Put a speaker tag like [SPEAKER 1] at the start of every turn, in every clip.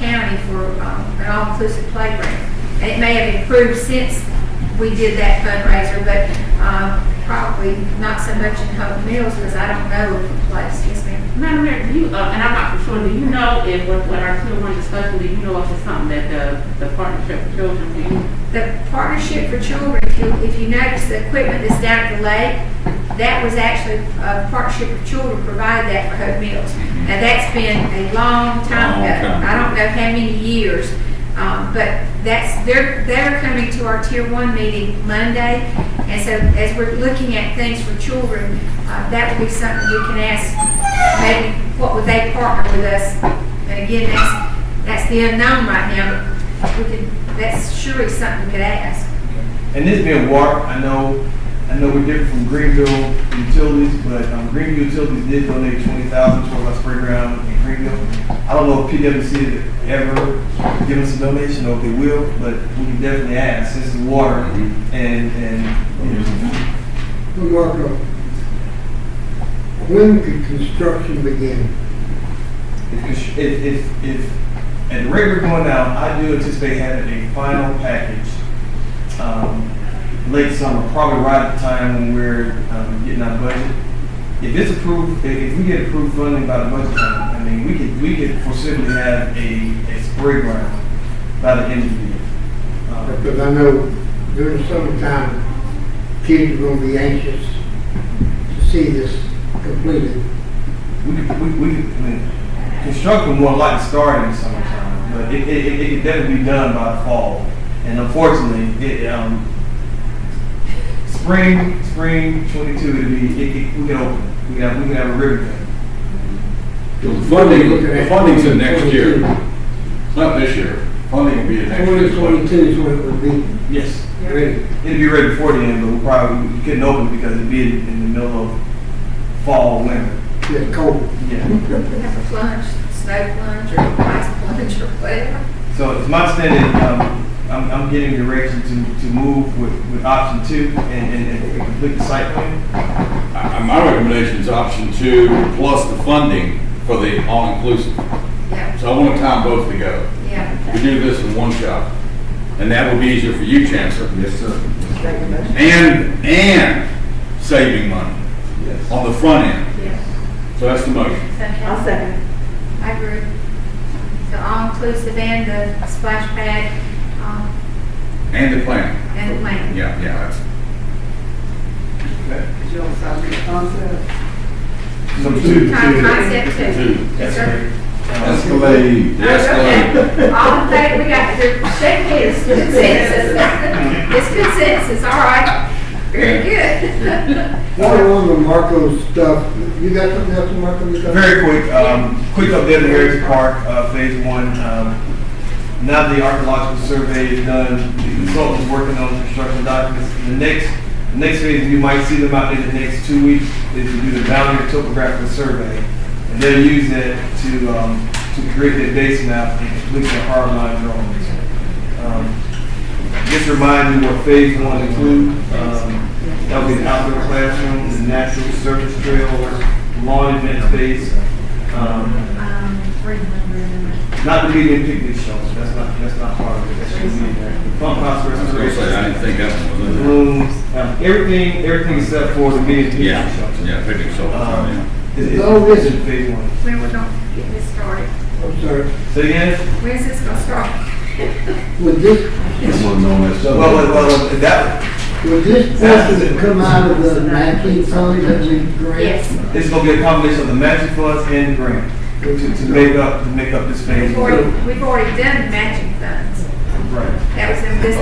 [SPEAKER 1] money for um, an all-inclusive playground. And it may have improved since we did that fundraiser, but um, probably not so much in Hope Mills because I don't know if the place, yes ma'am.
[SPEAKER 2] Madam Mayor, do you, uh, and I'm not for sure, do you know if, what, what our children were discussing, do you know if it's something that the, the partnership for children, do you?
[SPEAKER 1] The Partnership for Children, if you, if you notice the equipment that's down at the lake, that was actually, uh, Partnership for Children provided that for Hope Mills. Now, that's been a long time
[SPEAKER 3] Long
[SPEAKER 1] ago.
[SPEAKER 3] time.
[SPEAKER 1] I don't know how many years, um, but that's, they're, they're coming to our tier one meeting Monday. And so as we're looking at things for children, uh, that would be something we can ask, maybe, what would they partner with us? And again, that's, that's the unknown right now, but we could, that's surely something we could ask.
[SPEAKER 4] And this being Wark, I know, I know we're different from Greenville Utilities, but um, Greenville Utilities did donate twenty thousand toward our spray ground in Greenville. I don't know if PWC has ever given us a donation or if they will, but we can definitely ask. This is water
[SPEAKER 3] Mhm.
[SPEAKER 4] and, and, you know,
[SPEAKER 5] Marco, when could construction begin?
[SPEAKER 4] if, if, if, if at the rate we're going now, I do anticipate having a final package um, late summer, probably right at the time when we're um, getting our budget. If it's approved, if, if we get approved funding by the budget time, I mean, we could we could foreseeably have a, a spray ground by the end of the year. Um,
[SPEAKER 5] Because I know during the summertime, kids are gonna be anxious to see this completed.
[SPEAKER 4] we could, we, we could, I mean, construction more likely start in the summertime, but it, it, it- it could definitely be done by the fall. And unfortunately, it, um, spring, spring twenty-two, it'll be, it, it, we can open, it. we can have, we can have a ribbon cutting.
[SPEAKER 3] The funding, the funding's in next year,
[SPEAKER 5] 2022.
[SPEAKER 3] not this year. Funding will be in next year.
[SPEAKER 5] 2022 is when it would be
[SPEAKER 4] Yes.
[SPEAKER 5] ready.
[SPEAKER 4] It'd be ready before the end, but we probably, we couldn't open it because it'd be in, in the middle of fall, winter.
[SPEAKER 5] It's cold.
[SPEAKER 4] Yeah.
[SPEAKER 1] We have a plunge, snow plunge, or ice plunge, or whatever.
[SPEAKER 4] So it's my understanding, um, I'm, I'm getting direction to, to move with, with option two and, and, and complete the site plan.
[SPEAKER 3] I- I- My recommendation is option two plus the funding for the all-inclusive.
[SPEAKER 1] Yeah,
[SPEAKER 3] So I want to tie both together.
[SPEAKER 1] yeah.
[SPEAKER 3] We do this in one shot, and that will be easier for you, Chancellor. Yes, sir. And, and saving money
[SPEAKER 4] Yes.
[SPEAKER 3] on the front end.
[SPEAKER 1] Yeah.
[SPEAKER 3] So that's the motion.
[SPEAKER 1] I'll second. I agree. So all-inclusive and the splash pad, um,
[SPEAKER 3] And the plan.
[SPEAKER 1] and the land.
[SPEAKER 3] Yeah, yeah, that's.
[SPEAKER 4] So two,
[SPEAKER 1] Con-
[SPEAKER 4] two.
[SPEAKER 1] Concept two. Yes, sir.
[SPEAKER 3] Escalade. Escalade.
[SPEAKER 1] Okay. All in favor, we got, there- shake hands, consensus. It's consensus, all right. Very good.
[SPEAKER 5] While we're on the Marco stuff, you got something else, Marco? you got?
[SPEAKER 4] Very quick, um, quick update on Harris Park, uh, phase one. Um, Now the archaeological survey is done, the consultant's working on construction documents. The next, the next phase, you might see them out in the next two weeks, is to do the boundary topographical survey. And they'll use that to, um, to create that base map and complete their hard line drawings. Um, Just remind you what phase one include, um, that would be the outdoor classrooms, the natural surface trails, lawn event space, um, not the medium picnic shelter, that's not, that's not part of it, that shouldn't be in there. Pump house
[SPEAKER 3] I was gonna say, I
[SPEAKER 4] restoration,
[SPEAKER 3] didn't think that one was in there.
[SPEAKER 4] rooms, um, everything, everything except for the medium picnic
[SPEAKER 3] Yeah,
[SPEAKER 4] shelter.
[SPEAKER 3] yeah, picnic solar farm, yeah.
[SPEAKER 4] Um, is, is,
[SPEAKER 5] No,
[SPEAKER 4] is
[SPEAKER 5] this-
[SPEAKER 4] in phase one.
[SPEAKER 1] When we're gonna get this started?
[SPEAKER 5] I'm sorry,
[SPEAKER 4] So again,
[SPEAKER 1] When's this gonna start?
[SPEAKER 5] would this,
[SPEAKER 4] well, well, well, that,
[SPEAKER 5] would this portion come out of the nineteen fund that we grant?
[SPEAKER 1] Yes.
[SPEAKER 4] it's gonna be a combination of the matching funds and the grant to, to make up, to make up this phase.
[SPEAKER 1] We've already, we've already done matching funds.
[SPEAKER 4] Right,
[SPEAKER 1] That was in this,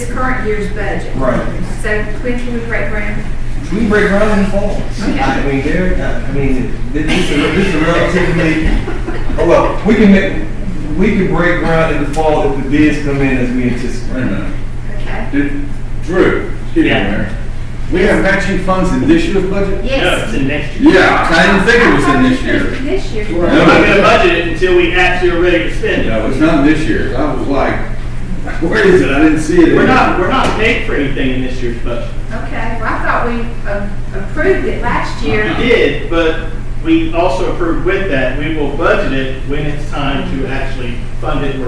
[SPEAKER 1] this current year's budget.
[SPEAKER 4] right.
[SPEAKER 1] So when can we break ground?
[SPEAKER 4] We break ground in the fall.
[SPEAKER 1] Okay.
[SPEAKER 4] I mean, there, I mean, this this is, this is relatively, oh, well, we can make, we can break ground in the fall if the bids come in as we
[SPEAKER 3] Wait a
[SPEAKER 4] anticipate.
[SPEAKER 3] minute.
[SPEAKER 1] Okay.
[SPEAKER 3] Did- Drew, excuse me,
[SPEAKER 6] Yeah.
[SPEAKER 3] Mayor. We have matching funds in this year's budget?
[SPEAKER 6] No, it's
[SPEAKER 1] Yes.
[SPEAKER 6] in next year.
[SPEAKER 3] Yeah, I didn't think it was in this year.
[SPEAKER 1] This year.
[SPEAKER 5] Right.
[SPEAKER 6] We're not gonna budget it until we actually are ready to spend it.
[SPEAKER 3] No, it's not this year. I was like, where is it? I didn't see it.
[SPEAKER 6] We're not, we're not paying for anything in this year's budget.
[SPEAKER 1] Okay, well, I thought we uh, approved it last year.
[SPEAKER 6] We did, but we also approved with that, we will budget it when it's time to actually fund it or